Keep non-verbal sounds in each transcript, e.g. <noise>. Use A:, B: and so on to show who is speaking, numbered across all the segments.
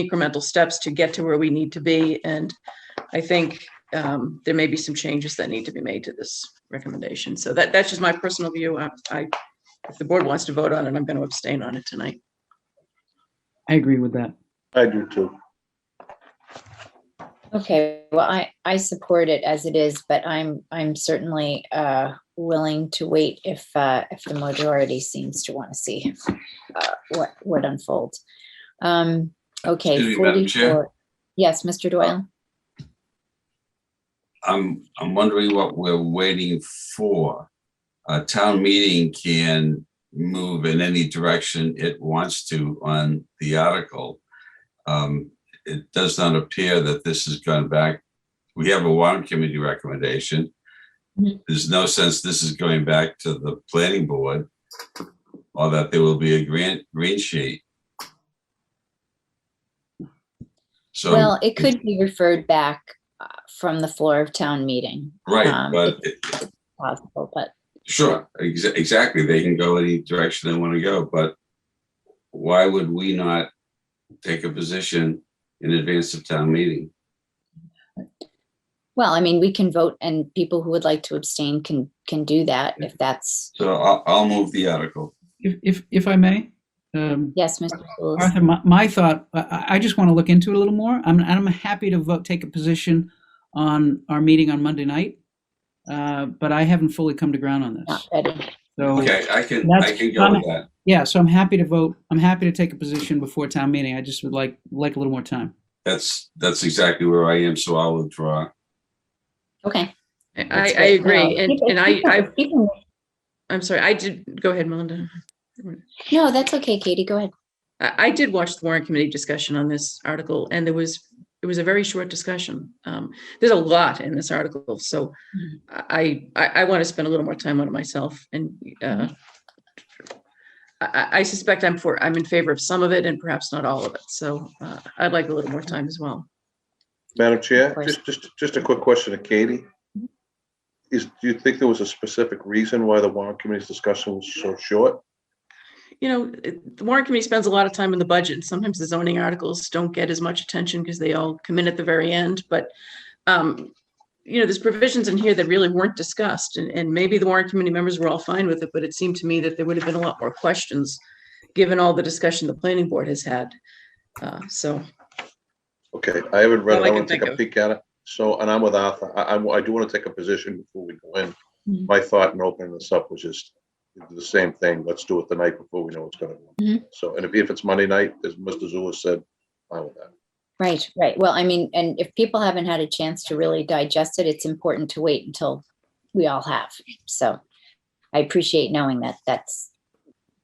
A: incremental steps to get to where we need to be. And I think um, there may be some changes that need to be made to this recommendation. So that, that's just my personal view. I- I, if the board wants to vote on it, I'm going to abstain on it tonight.
B: I agree with that.
C: I do too.
D: Okay, well, I, I support it as it is, but I'm, I'm certainly uh, willing to wait if, uh, if the majority seems to want to see uh, what, what unfolds. Um, Okay,
E: Excuse me, Madam Chair?
D: 44. Yes, Mr. Doyle?
E: I'm, I'm wondering what we're waiting for. A town meeting can move in any direction it wants to on the article. Um, It does not appear that this has gone back. We have a warrant committee recommendation.
D: Mhm.
E: There's no sense this is going back to the planning board or that there will be a grant, green sheet. Uh, So.
D: Well, it could be referred back uh, from the floor of town meeting.
E: Right,
D: Um,
E: but
D: it's Possible, but
E: sure, exa- exactly. They can go any direction they want to go, but why would we not take a position in advance of town meeting?
D: Well, I mean, we can vote and people who would like to abstain can, can do that if that's,
E: So I'll, I'll move the article.
B: If, if, if I may, um,
D: yes, Mr. Schools.
B: Arthur, my, my thought, I- I, I just want to look into it a little more. I'm, I'm happy to vote, take a position on our meeting on Monday night. Uh, but I haven't fully come to ground on
A: Uh,
D: Not
B: this.
D: ready.
B: So,
E: Okay, I can, I can go with that.
B: yeah, so I'm happy to vote. I'm happy to take a position before town meeting. I just would like, like a little more time.
E: That's, that's exactly where I am, so I'll withdraw.
D: Okay.
A: I,
D: that's
A: I I
D: great.
A: agree.
D: No,
A: And,
D: people-
A: and I,
D: people-
A: I,
D: people-
A: I'm sorry, I did, go ahead, Melinda.
D: No, that's okay, Katie, go ahead.
A: I, I did watch the warrant committee discussion on this article and there was, it was a very short discussion. Um, there's a lot in this article, so I, I, I want to spend a little more time on it myself and, uh, I, I- I suspect I'm for, I'm in favor of some of it and perhaps not all of it. So, uh, I'd like a little more time as well.
C: Madam Chair,
D: Of course. Mm-hmm.
C: just, just, just a quick question to Katie. Is, do you think there was a specific reason why the warrant committee's discussion was so short?
A: you know, it- the warrant committee spends a lot of time on the budget. Sometimes the zoning articles don't get as much attention because they all come in at the very end, but um, you know, there's provisions in here that really weren't discussed and, and maybe the warrant committee members were all fine with it, but it seemed to me that there would have been a lot more questions given all the discussion the planning board has had. Uh, so,
C: Okay, I haven't read
A: All
C: it.
A: I
C: I
A: can
C: want to take
A: think
C: a
A: of.
C: peek at it. So, and I'm with Arthur. I, I, I do want to take a position before we go in.
D: Mhm.
C: My thought in opening this up was just the same thing. Let's do it the night before we know what's going to
D: Mhm.
C: go. So, and if, if it's Monday night, as Mr. Zulus said, fine with that.
D: Right, right. Well, I mean, and if people haven't had a chance to really digest it, it's important to wait until we all have. So I appreciate knowing that that's,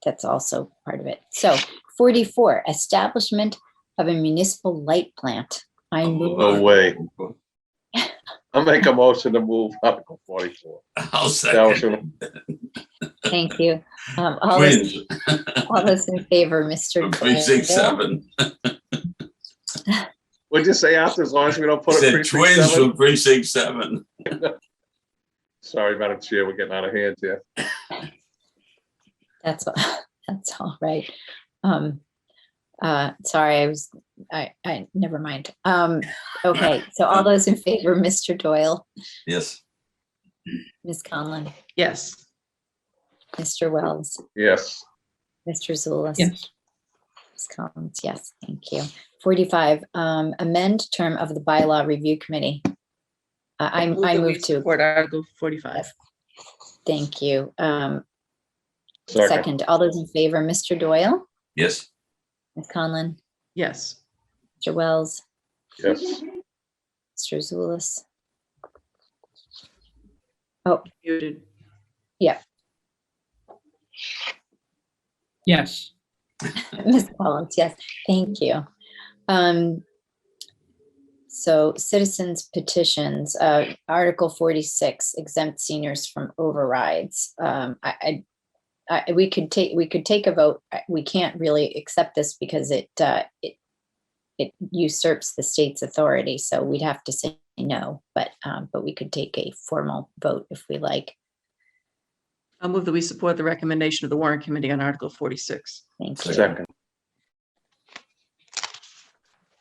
D: that's also part of it. So 44, establishment of a municipal light plant. I move,
C: No way. I'll make a motion to move Article
A: <laughs>
C: forty-four.
E: I'll second.
C: Establishment-
D: thank you. Um, All those-
E: Twins,
D: all those in favor, Mr.
E: <laughs> from precinct
D: Doyle?
E: seven.
C: What'd you say after, as long as we don't put a
E: Said
C: precinct
E: twins
C: seven?
E: from precinct seven.
C: Sorry, Madam Chair, we're getting out of hand here.
D: That's, all- <laughs> that's all right. Um, uh, sorry, I was, I, I, never mind. Um, okay, so all those in favor, Mr. Doyle,
E: Yes,
D: Ms. Conlon,
A: yes,
D: Mr. Wells,
C: Yes,
D: Mr. Zulus.
B: Yes.
D: Ms. Collins, yes, thank you. Forty-five, um, amend term of the bylaw review committee. I, I'm- I
A: that we
D: move to,
A: Support Article forty-five.
D: thank you. Um,
C: second,
D: second, all those in favor, Mr. Doyle,
E: yes,
D: Ms. Conlon,
A: Yes,
D: Mr. Wells,
C: yes,
D: Mr. Zulus.
A: muted.
B: Yes,
D: <laughs> Ms. Collins, yes, thank you. Um, so citizens petitions, uh, Article forty-six exempt seniors from overrides. Um, I, I, I, we could take, we could take a vote. I- We can't really accept this because it, uh, it, it usurps the state's authority, so we'd have to say no, but, um, but we could take a formal vote if we like.
A: I'll move that we support the recommendation of the warrant committee on Article forty-six.
D: Thank you.
C: second,